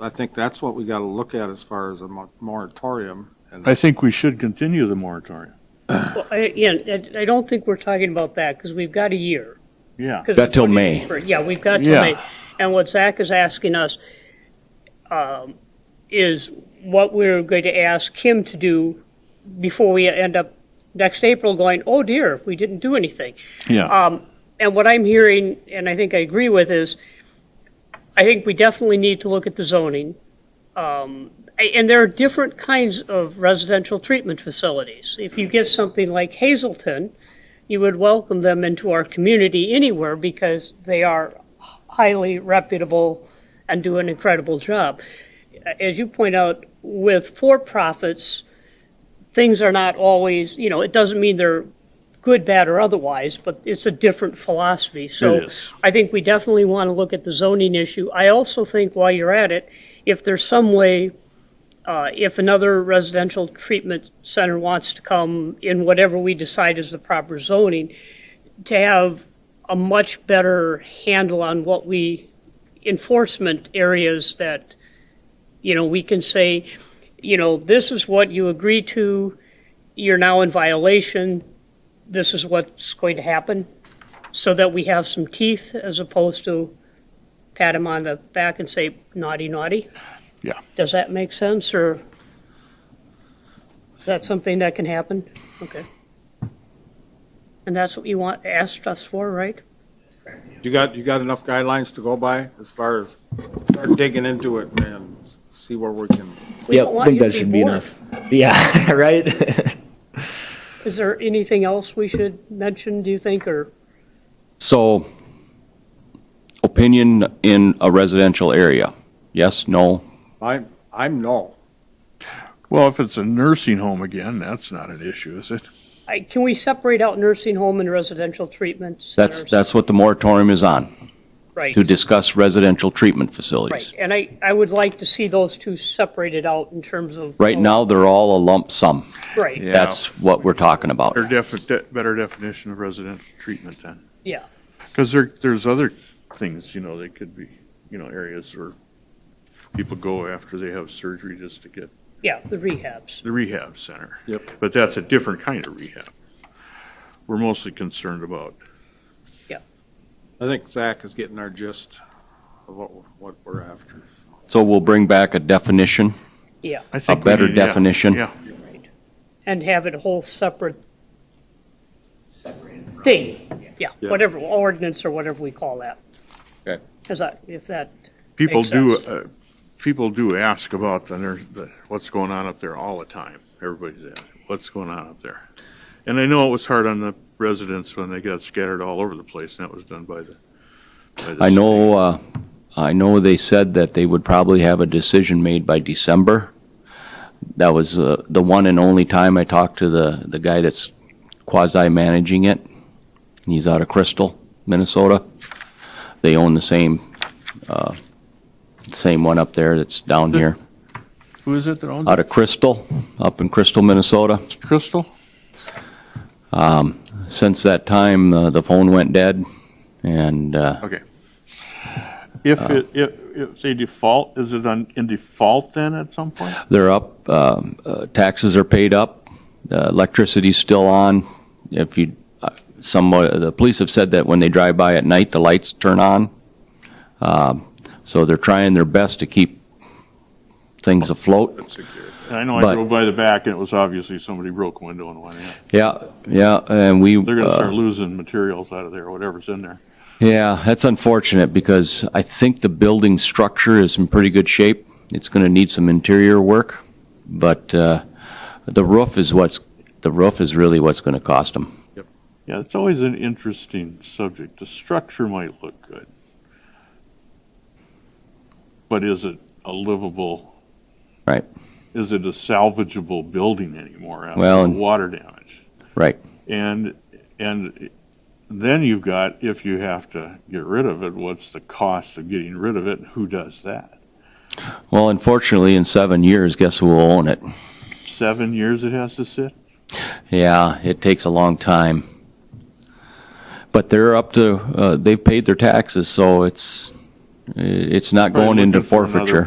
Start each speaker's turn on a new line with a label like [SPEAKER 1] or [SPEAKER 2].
[SPEAKER 1] I think that's what we got to look at as far as a mo- moratorium. and-
[SPEAKER 2] I think we should continue the moratorium.
[SPEAKER 3] Well, I, yeah, I- I don't think we're talking about that, because we've got a year.
[SPEAKER 2] Yeah.
[SPEAKER 3] 'Cause
[SPEAKER 4] Got till
[SPEAKER 3] it's
[SPEAKER 4] May.
[SPEAKER 3] 20 Yeah, we've got till
[SPEAKER 2] Yeah.
[SPEAKER 3] May. And what Zach is asking us um, is what we're going to ask him to do before we end up next April going, oh dear, we didn't do anything.
[SPEAKER 2] Yeah.
[SPEAKER 3] And what I'm hearing, and I think I agree with, is I think we definitely need to look at the zoning. Um, a- And there are different kinds of residential treatment facilities. If you get something like Hazelton, you would welcome them into our community anywhere because they are highly reputable and do an incredible job. As you point out, with for-profits, things are not always, you know, it doesn't mean they're good, bad, or otherwise, but it's a different philosophy. So
[SPEAKER 2] It is.
[SPEAKER 3] I think we definitely want to look at the zoning issue. I also think while you're at it, if there's some way, uh, if another residential treatment center wants to come in whatever we decide is the proper zoning, to have a much better handle on what we, enforcement areas that, you know, we can say, you know, this is what you agree to, you're now in violation, this is what's going to happen, so that we have some teeth as opposed to pat him on the back and say naughty, naughty.
[SPEAKER 2] Yeah.
[SPEAKER 3] Does that make sense, or is that something that can happen? Okay. And that's what you want, asked us for, right?
[SPEAKER 1] You got, you got enough guidelines to go by as far as start digging into it and s- see where we can.
[SPEAKER 3] We
[SPEAKER 4] Yep,
[SPEAKER 3] don't want
[SPEAKER 4] think
[SPEAKER 3] you to
[SPEAKER 4] that
[SPEAKER 3] be
[SPEAKER 4] should be
[SPEAKER 3] bored.
[SPEAKER 4] enough. Yeah, right?
[SPEAKER 3] Is there anything else we should mention, do you think, or?
[SPEAKER 4] So, opinion in a residential area, yes, no?
[SPEAKER 1] I'm, I'm no.
[SPEAKER 2] Well, if it's a nursing home again, that's not an issue, is it?
[SPEAKER 3] I- Can we separate out nursing home and residential treatment
[SPEAKER 4] That's,
[SPEAKER 3] centers?
[SPEAKER 4] that's what the moratorium is on,
[SPEAKER 3] Right,
[SPEAKER 4] to discuss residential treatment
[SPEAKER 3] right.
[SPEAKER 4] facilities.
[SPEAKER 3] And I, I would like to see those two separated out in terms of.
[SPEAKER 4] Right now, they're all a lump sum.
[SPEAKER 3] Right,
[SPEAKER 2] Yeah.
[SPEAKER 4] That's what we're talking about.
[SPEAKER 2] Better defi- de- better definition of residential treatment then.
[SPEAKER 3] yeah.
[SPEAKER 2] Because there, there's other things, you know, that could be, you know, areas where people go after they have surgery just to get
[SPEAKER 3] Yeah, the rehabs.
[SPEAKER 2] the rehab center.
[SPEAKER 1] Yep.
[SPEAKER 2] But that's a different kind of rehab. We're mostly concerned about,
[SPEAKER 1] I think Zach is getting our gist of what, we're- what we're after.
[SPEAKER 4] So we'll bring back a definition.
[SPEAKER 2] I think. we
[SPEAKER 4] better
[SPEAKER 2] need- yeah,
[SPEAKER 4] definition.
[SPEAKER 2] Yeah,
[SPEAKER 3] and have it a whole separate thing, yeah,
[SPEAKER 1] Yeah.
[SPEAKER 3] whatever, ordinance or whatever we call that.
[SPEAKER 4] Okay.
[SPEAKER 3] Is that, if that,
[SPEAKER 2] people
[SPEAKER 3] Makes
[SPEAKER 2] do,
[SPEAKER 3] sense.
[SPEAKER 2] uh, people do ask about the, nurse- the- what's going on up there all the time. Everybody's asking, what's going on up there? And I know it was hard on the residents when they got scattered all over the place, and that was done by the. by the
[SPEAKER 4] I know, uh, I know they said that they would probably have a decision made by December. That was uh, the one and only time I talked to the, the guy that's quasi-managing it. He's out of Crystal, Minnesota. They own the same, uh, same one up there that's down here,
[SPEAKER 2] state. Who is it that owns
[SPEAKER 4] out of Crystal, up in Crystal, Minnesota.
[SPEAKER 2] it? Crystal?
[SPEAKER 4] Since that time, uh, the phone went dead, and uh,
[SPEAKER 2] Okay. If it, if, if they default, is it on, in default then at some point?
[SPEAKER 4] They're up, um, uh, taxes are paid up, uh, electricity's still on. If you, uh, some, uh, the police have said that when they drive by at night, the lights turn on. Um, So they're trying their best to keep things afloat.
[SPEAKER 2] And I know I
[SPEAKER 4] But-
[SPEAKER 2] drove by the back and it was obviously somebody broke a window and went in.
[SPEAKER 4] Yeah, yeah, and we.
[SPEAKER 2] They're gonna
[SPEAKER 4] uh,
[SPEAKER 2] start losing materials out of there, whatever's in there.
[SPEAKER 4] Yeah, that's unfortunate because I think the building structure is in pretty good shape. It's going to need some interior work, but uh, the roof is what's, the roof is really what's going to cost them.
[SPEAKER 2] Yeah, it's always an interesting subject. The structure might look good. But is it a livable?
[SPEAKER 4] Right.
[SPEAKER 2] Is it a salvageable building anymore after
[SPEAKER 4] Well,
[SPEAKER 2] the
[SPEAKER 4] and-
[SPEAKER 2] water damage?
[SPEAKER 4] Right.
[SPEAKER 2] And, and then you've got, if you have to get rid of it, what's the cost of getting rid of it? and Who does that?
[SPEAKER 4] Well, unfortunately, in seven years, guess who will own it?
[SPEAKER 2] Seven years it has to sit?
[SPEAKER 4] Yeah, it takes a long time. But they're up to, uh, they've paid their taxes, so it's, it's not
[SPEAKER 2] Probably
[SPEAKER 4] going into
[SPEAKER 2] looking for another
[SPEAKER 4] forfeiture.